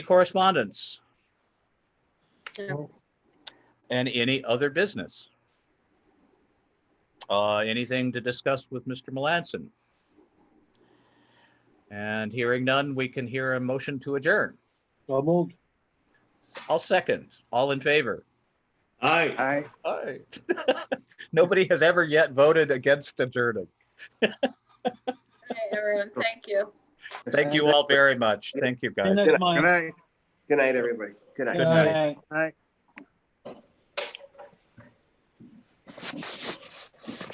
correspondence? No. And any other business? Uh, anything to discuss with Mr. Melanson? And hearing none, we can hear a motion to adjourn. So moved. I'll second. All in favor? Aye. Aye. Aye. Nobody has ever yet voted against adjourning. All right, everyone, thank you. Thank you all very much. Thank you, guys. Good night, Mike. Good night, everybody. Good night. Good night. Good night.